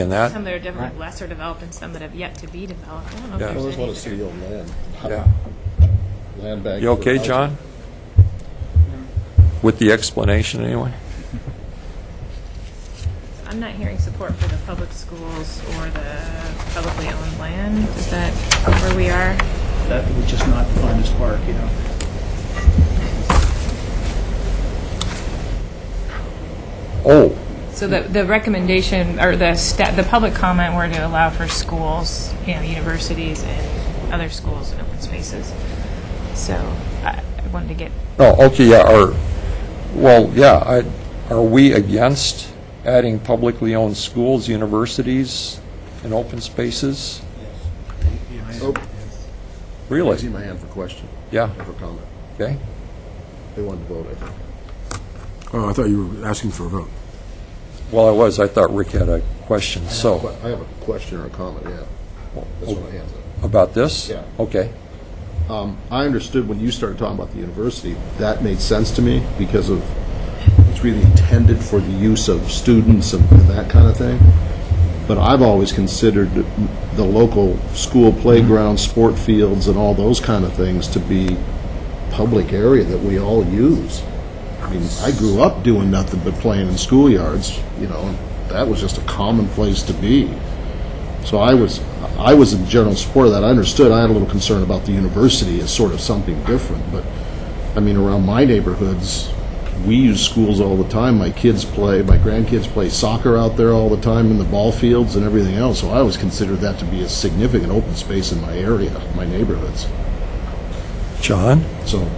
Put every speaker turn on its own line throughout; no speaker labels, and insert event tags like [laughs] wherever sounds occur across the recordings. in that.
Some that are definitely lesser developed and some that have yet to be developed. I don't know if
Yeah.
there's
Well,
I just want to
anything.
see the old land,
Yeah.
land bank.
You
for
okay,
housing.
John? With the explanation, anyway?
I'm not hearing support for the public schools or the publicly owned land. Is that where we are?
That would just not define as park, you know.
Oh,
So the, the recommendation, or the sta the public comment were to allow for schools, you know, universities and other schools and open spaces. So I I wanted to get,
oh, okay, yeah, are, well, yeah, I, are we against adding publicly owned schools, universities, and open spaces?
Oh, I see
Really?
my hand for question,
Yeah,
for comment.
okay.
They wanted to vote, I think.
Oh, I thought you were asking for a vote.
Well, I was, I thought Rick had a question, so, Oh.
But I have a question or a comment, yeah. That's what I have.
about this?
Yeah.
Okay,
Um, I understood when you started talking about the university, that made sense to me because of, it's really intended for the use of students and and that kind of thing. But I've always considered the local school playground, sport fields, and all those kind of things to be public area that we all use. I mean, I grew up doing nothing but playing in schoolyards, you know, and that was just a common place to be. So I was, I was in general support of that. I understood, I had a little concern about the university as sort of something different, but, I mean, around my neighborhoods, we use schools all the time. My kids play, my grandkids play soccer out there all the time in the ball fields and everything else, so I always considered that to be a significant open space in my area, my neighborhoods.
John?
So,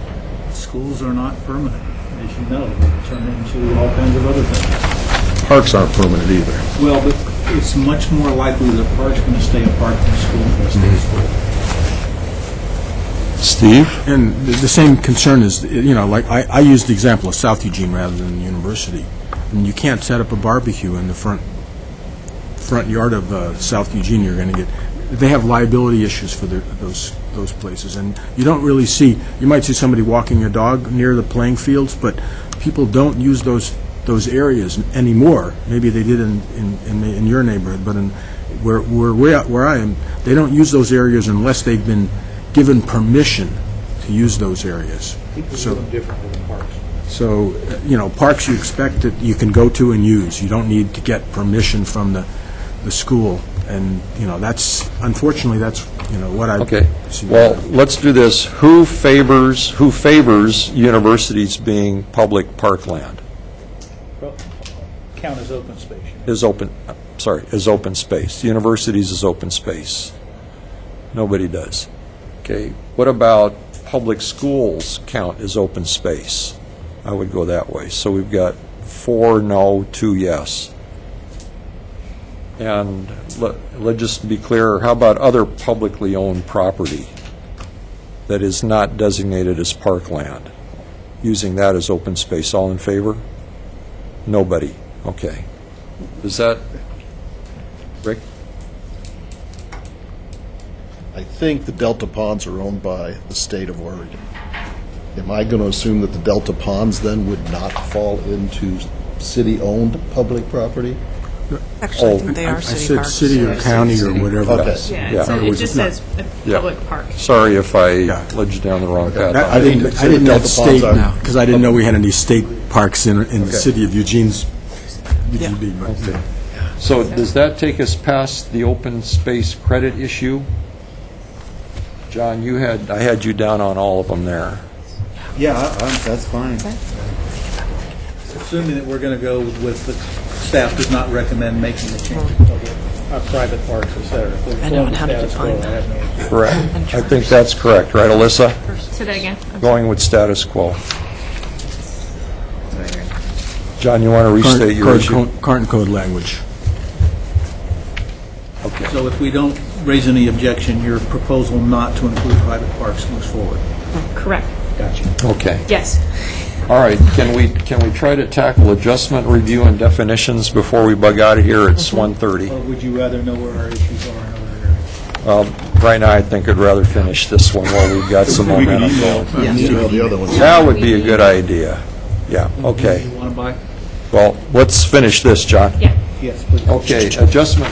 Schools are not permanent, as you know, they turn into all kinds of other things.
parks aren't permanent either.
Well, but it's much more likely that a park's going to stay a park than a school's going to stay a school.
Steve?
And the the same concern is, you know, like, I, I used the example of South Eugene rather than the university. And you can't set up a barbecue in the front, front yard of uh, South Eugene, you're going to get, they have liability issues for their- those, those places. And you don't really see, you might see somebody walking their dog near the playing fields, but people don't use those, those areas anymore. Maybe they did in, in, in the- in your neighborhood, but in, where, where, we- where I am, they don't use those areas unless they've been given permission to use those areas. So. So, uh, you know, parks you expect that you can go to and use. You don't need to get permission from the, the school. And, you know, that's, unfortunately, that's, you know, what I...
Okay,
see.
well, let's do this. Who favors, who favors universities being public parkland?
Well, Count as open space. you know.
Is open, uh, sorry, is open space. Universities is open space. Nobody does. Okay, what about public schools count as open space? I would go that way. So we've got four no, two yes. And let, let just be clear, how about other publicly owned property that is not designated as parkland? Using that as open space, all in favor? Nobody, okay. Is that, Rick?
I think the Delta Ponds are owned by the state of Oregon. Am I going to assume that the Delta Ponds then would not fall into city-owned public property?
Oh,
Actually, I think they
I
are city
said
parks.
city or county or whatever.
Okay.
yeah,
Yeah.
it's- it just says a
Yeah.
public park.
Sorry if I
Yeah.
led you down the wrong
That- I
path.
didn't, I didn't know it's
Delta
state
ponds are-
now, because I didn't know we had any state parks in, in the city of Eugene's,
Yeah.
UGB. but-
So does that take us past the open space credit issue? John, you had, I had you down on all of them there.
Yeah, I- I- that's fine.
Assuming that we're going to go with, the staff does not recommend making the change to public, uh, private parks, et cetera. If we're
I don't
going
know how to
status quo,
define
I have no issue.
Correct. I think that's correct, right, Alyssa?
Say that again. I'm
Going with status quo. John, you want to restate your
Current-
issue?
current- Current code language.
So if we don't raise any objection, your proposal not to include private parks moves forward.
Correct.
Gotcha.
Okay.
Yes.
All right, can we, can we try to tackle adjustment, review, and definitions before we bug out of here? It's 1:30.
Or would you rather know where our issues are in other areas?
Right now, Uh, I think I'd rather finish this one while we've got [laughs]
[laughs]
some momentum going.
Email the other ones.
That would be a good idea. Yeah, okay.
You want to buy?
Well, let's finish this, John.
Yeah.
Yes, please.
Okay, adjustment